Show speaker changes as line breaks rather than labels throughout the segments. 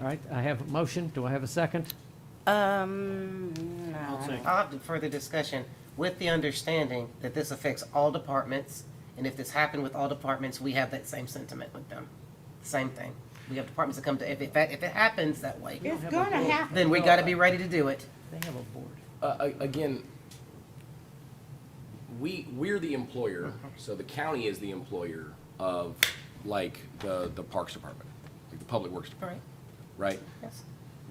All right, I have a motion. Do I have a second?
Um, no.
I'll second.
I'll have the further discussion with the understanding that this affects all departments. And if this happened with all departments, we have that same sentiment with them. Same thing. We have departments that come to, if it, if it happens that way,
It's gonna happen.
then we gotta be ready to do it.
They have a board.
Uh, a- again, we, we're the employer, so the county is the employer of, like, the, the Parks Department, like the Public Works Department,
Right?
right?
Yes,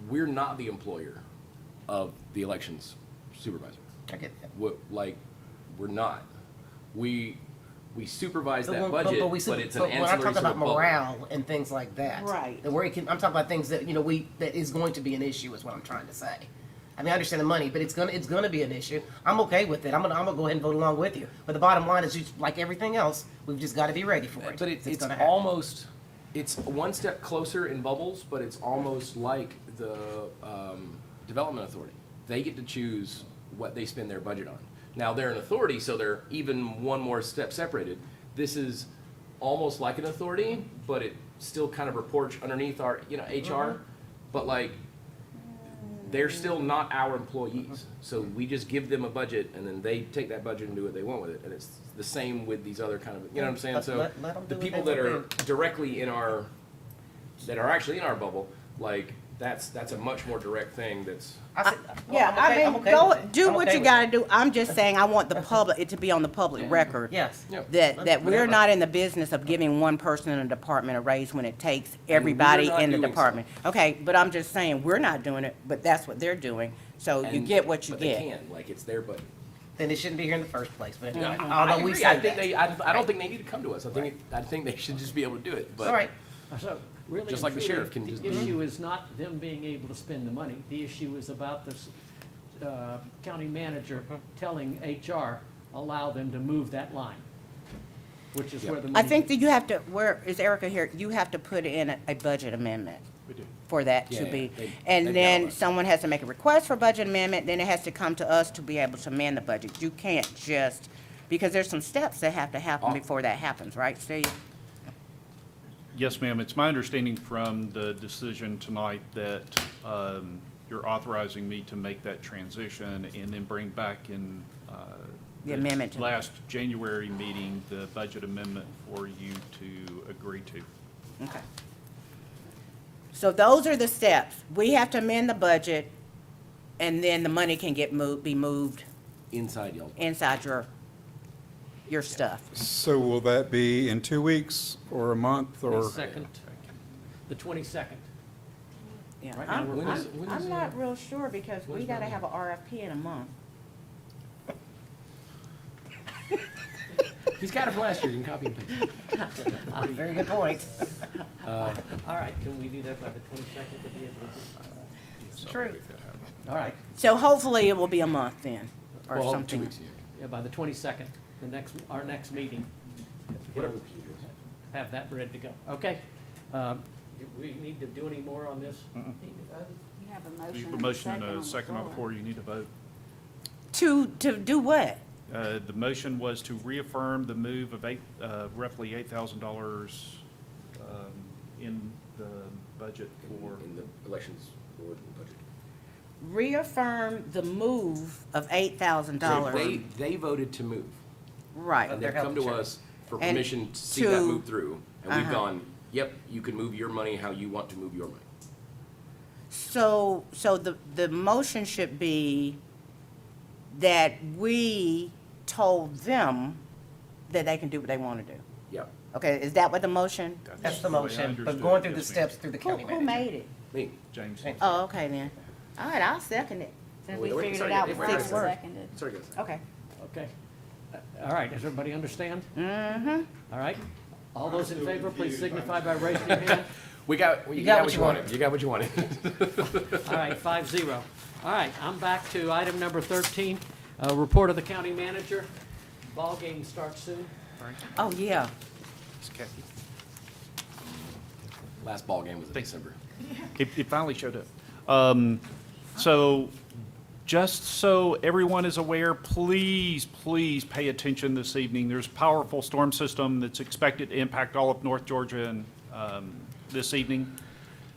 We're not the employer of the elections supervisor.
I get that.
What, like, we're not. We, we supervise
But
that
we're-
budget,
we
but
said-
it's an
When I
ancillary
talk
to the
about
public.
morale and things like that.
Right.
The worry can, I'm talking about things that, you know, we, that is going to be an issue is what I'm trying to say. I mean, I understand the money, but it's gonna, it's gonna be an issue. I'm okay with it. I'm gonna, I'm gonna go ahead and vote along with you. But the bottom line is, you- like everything else, we've just gotta be ready for it.
But it's, it's
gonna happen.
almost, it's one step closer in bubbles, but it's almost like the, um, development authority. They get to choose what they spend their budget on. Now, they're an authority, so they're even one more step separated. This is almost like an authority, but it still kind of reports underneath our, you know, HR.
Mm-hmm.
But like, they're still not our employees. So we just give them a budget and then they take that budget and do what they want with it. And it's the same with these other kind of, you know what I'm saying?
Let-
So
let- let 'em
the
do what
people
they
that are
want
directly in our, that are actually in our bubble, like, that's, that's a much more direct thing that's,
I said-
Yeah,
I'm okay-
I
I'm
mean,
okay
go,
with it.
do
I'm
what
okay
you
with
gotta do. I'm just saying, I want the public, it to be on the public record.
Yes.
Yep.
That, that we're
Whatever.
not in the business of giving one person in a department a raise when it takes everybody
not
in the
doing so.
department. Okay, but I'm just saying, we're not doing it, but that's what they're doing. So you
and-
get what you
But they
get.
can, like, it's their budget.
it. Then it shouldn't be here in the first place, but anyway,
I
although we
agree. I
said
think
that.
they, I, I don't think they need to come to us. I think, it- I think they should just be able to do it, but.
All right,
So really,
Just like the
and truly,
sheriff can just-
The issue is not them being able to spend the money. The issue is about this uh, county manager telling HR, allow them to move that line, which is where the
I
money.
think that you have to, where, is Erica here? You have to put in a, a budget amendment. For that to
Yeah,
be,
yeah, they- they've
and
got all
then
that.
someone has to make a request for budget amendment, then it has to come to us to be able to amend the budget. You can't just, because there's some steps that have to happen
Oh.
before that happens, right, Steve?
Yes, ma'am. It's my understanding from the decision tonight that um, you're authorizing me to make that transition and then bring back in uh,
The amendment to-
Last January meeting, the budget amendment for you to agree to.
Okay. So those are the steps. We have to amend the budget, and then the money can get moved, be moved
Inside y'all.
inside your, your stuff.
So will that be in two weeks or a month or?
Second, the twenty-second.
Yeah,
Right now,
I'm,
we're-
When is-
I'm-
when is,
I'm
uh,
not real sure, because we
when's
gotta
that?
have a RFP in a month.
He's got it from last year. You can copy and paste.
very good point.
All right, can we do that by the twenty-second to be able to?
True.
All right,
So hopefully it will be a month then, or
Well, two
something.
weeks, yeah.
yeah, by the twenty-second, the next, our next meeting,
Whatever. computer is.
have that ready to go. Okay? Um, Do we need to do any more on this?
You have a
You
motion.
have a motion and
on
a
the
second on the
floor.
floor, you need to vote.
To, to do what?
Uh, The motion was to reaffirm the move of eight, uh, roughly $8,000 um, in the budget for.
In the elections board and budget.
Reaffirm the move of eight thousand
They,
dollars,
they voted to move.
right.
And they've come to us for
And
permission to see that
to-
move through. And we've
Uh-huh.
gone, yep, you can move your money how you want to move your money.
So, so the, the motion should be that we told them that they can do what they want to do.
Yep.
Okay, is that what the motion?
That's the
way I
motion, but
understood
going
it.
through the
Yes, ma'am.
steps through the
Who,
county
who
manager.
made it?
Me.
James.
Oh, okay then. All right, I'll second it, since we
Wait, wait,
figured it
sorry,
out
wait,
with
wait,
six Oh.
wait,
words.
Seconded.
Sorry, guys.
Okay.
Okay. Uh, All right, does everybody understand?
Mm-hmm.
All right? All those in favor, please signify by raising your hand.
We got, you got what you wanted. You got what you wanted.
All right, five zero. All right, I'm back to item number thirteen, uh, report of the county manager. Ball game starts soon.
Oh, yeah.
Last ball game was in December.
It, it finally showed up. Um, so, just so everyone is aware, please, please pay attention this evening. There's a powerful storm system that's expected to impact all of North Georgia and, um, this evening.